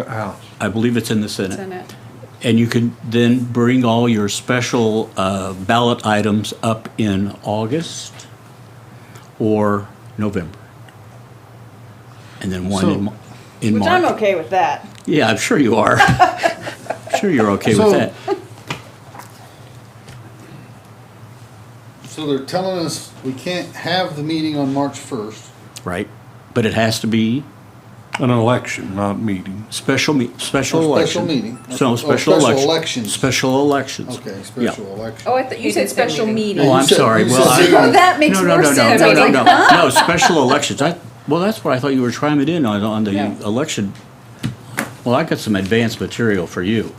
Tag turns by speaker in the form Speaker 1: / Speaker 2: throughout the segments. Speaker 1: House.
Speaker 2: I believe it's in the
Speaker 3: It's
Speaker 2: Senate.
Speaker 3: in it.
Speaker 2: And you can then bring all your special uh, ballot items up in August or November. And then one in Mar- in
Speaker 4: Which I'm
Speaker 2: March.
Speaker 4: okay with that.
Speaker 2: Yeah, I'm sure you are. Sure you're okay
Speaker 1: So-
Speaker 2: with that.
Speaker 1: So they're telling us we can't have the meeting on March first.
Speaker 2: Right. But it has to be
Speaker 5: An election, not meeting.
Speaker 2: special, me- special
Speaker 1: Or
Speaker 2: election.
Speaker 1: Oh, special meeting.
Speaker 2: So,
Speaker 1: Or
Speaker 2: special
Speaker 1: special
Speaker 2: election.
Speaker 1: elections.
Speaker 2: Special elections.
Speaker 1: Okay,
Speaker 2: Yeah.
Speaker 1: special election.
Speaker 3: Oh, I thought, you
Speaker 4: He
Speaker 3: said
Speaker 4: just said
Speaker 3: special
Speaker 4: meeting.
Speaker 1: You
Speaker 2: Oh,
Speaker 3: meeting.
Speaker 2: I'm
Speaker 1: said-
Speaker 2: sorry.
Speaker 1: you
Speaker 2: Well,
Speaker 1: said
Speaker 2: I-
Speaker 1: zero.
Speaker 3: Oh, that makes
Speaker 2: No, no,
Speaker 3: more
Speaker 2: no, no,
Speaker 3: sense.
Speaker 2: no,
Speaker 3: I was
Speaker 2: no,
Speaker 3: like,
Speaker 2: no,
Speaker 3: huh?
Speaker 2: no, special elections. I, well, that's what I thought you were trying it in on, on the
Speaker 3: Yeah.
Speaker 2: election. Well, I got some advanced material for you.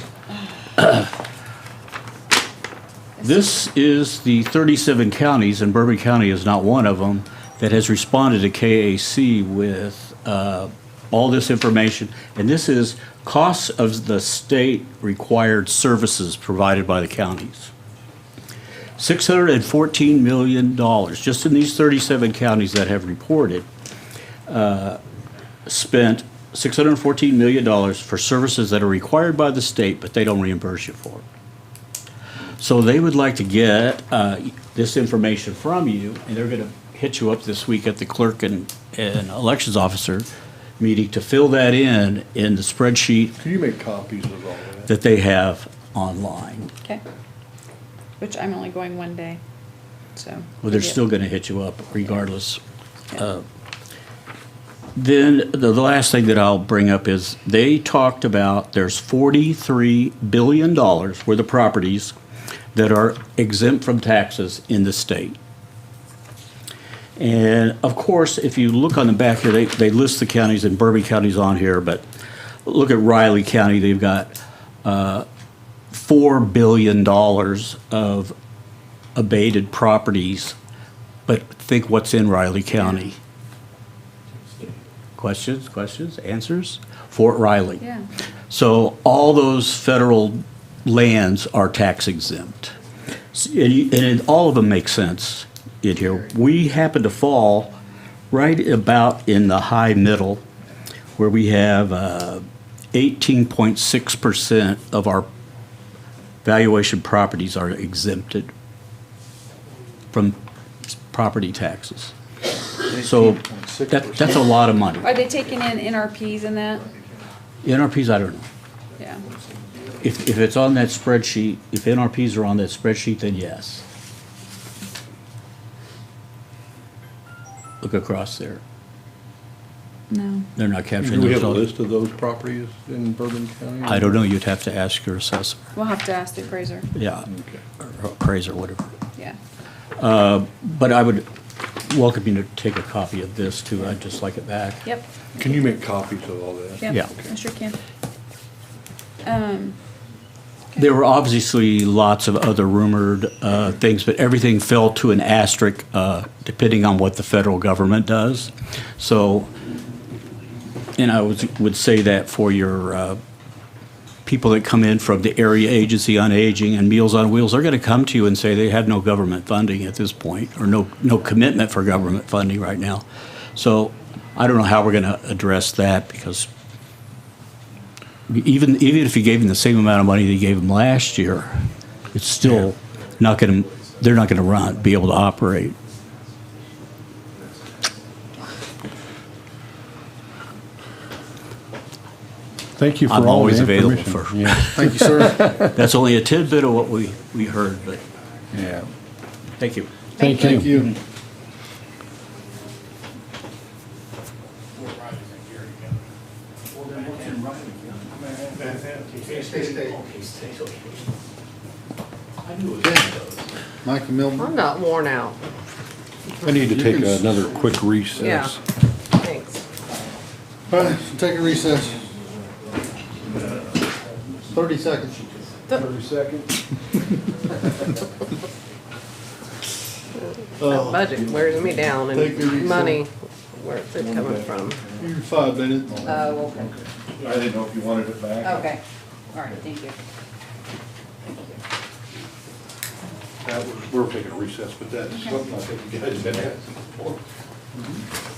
Speaker 2: This is the 37 counties, and Bourbon County is not one of them, that has responded to KAC with uh, all this information. And this is costs of the state required services provided by the counties. $614 million, just in these 37 counties that have reported, uh, spent $614 million for services that are required by the state, but they don't reimburse you for. it. So they would like to get uh, this information from you, and they're going to hit you up this week at the clerk and, and elections officer meeting to fill that in, in the spreadsheet
Speaker 5: Can you make copies of all that?
Speaker 2: that they have online.
Speaker 3: Okay. Which I'm only going one day, so.
Speaker 2: Well, they're
Speaker 3: Yeah.
Speaker 2: still going to hit you up regardless. Uh, Then, the the last thing that I'll bring up is, they talked about, there's $43 billion worth of properties that are exempt from taxes in the state. And of course, if you look on the back here, they, they list the counties, and Bourbon County's on here, but look at Riley County, they've got uh, $4 billion of abated properties, but think what's in Riley County. Questions, questions, answers? Fort Riley.
Speaker 3: Yeah.
Speaker 2: So all those federal lands are tax exempt. S- And, you- and it- all of them make sense in here. We happen to fall right about in the high middle where we have uh, 18.6% of our valuation properties are exempted from s- property taxes. So that,
Speaker 1: 18.6%.
Speaker 2: that's a lot of money.
Speaker 3: Are they taking in NRPs and that?
Speaker 2: NRPs, I don't know.
Speaker 3: Yeah.
Speaker 2: If, if it's on that spreadsheet, if NRPs are on that spreadsheet, then yes. Look across there.
Speaker 3: No.
Speaker 2: They're not capturing
Speaker 5: Do we have a
Speaker 2: themselves.
Speaker 5: list of those properties in Bourbon County?
Speaker 2: I don't know. You'd have to ask your assessor.
Speaker 3: We'll have to ask the appraiser.
Speaker 2: Yeah. Or appraiser, whatever.
Speaker 3: Yeah.
Speaker 2: But I would welcome you to take a copy of this too. I'd just like it back.
Speaker 3: Yep.
Speaker 5: Can you make copies of all that?
Speaker 2: Yeah.
Speaker 3: Yep. I sure can. Um,
Speaker 2: There were obviously lots of other rumored uh, things, but everything fell to an asterisk uh, depending on what the federal government does. So, and I was- would say that for your uh, people that come in from the Area Agency on Aging and Meals on Wheels, they're going to come to you and say they have no government funding at this point, or no, no commitment for government funding right now. So I don't know how we're going to address that, because even, even if you gave them the same amount of money they gave them last year, it's still not going to, they're not going to run, be able to operate.
Speaker 5: Thank you for all
Speaker 2: I'm
Speaker 5: the
Speaker 2: always available
Speaker 5: information.
Speaker 2: for-
Speaker 5: Yeah,
Speaker 1: Thank you, sir.
Speaker 2: That's only a tidbit of what we, we heard, but
Speaker 5: yeah.
Speaker 2: thank you.
Speaker 5: Thank
Speaker 1: Thank
Speaker 5: you.
Speaker 1: you. Mike and
Speaker 6: I'm
Speaker 1: Milton,
Speaker 6: not worn out.
Speaker 5: I need to take
Speaker 1: can s-
Speaker 5: another quick recess.
Speaker 6: Thanks.
Speaker 1: All right, take a recess. Thirty seconds. Oh.
Speaker 6: That
Speaker 1: Uh,
Speaker 6: budget wears me down
Speaker 1: Take your
Speaker 6: and
Speaker 1: refill.
Speaker 6: money, where's it coming from?
Speaker 1: You're five minutes.
Speaker 6: Oh, okay.
Speaker 7: I didn't know if you wanted it back.
Speaker 3: Okay. All right, thank you.
Speaker 5: We're taking a recess, but that's something I think you guys have been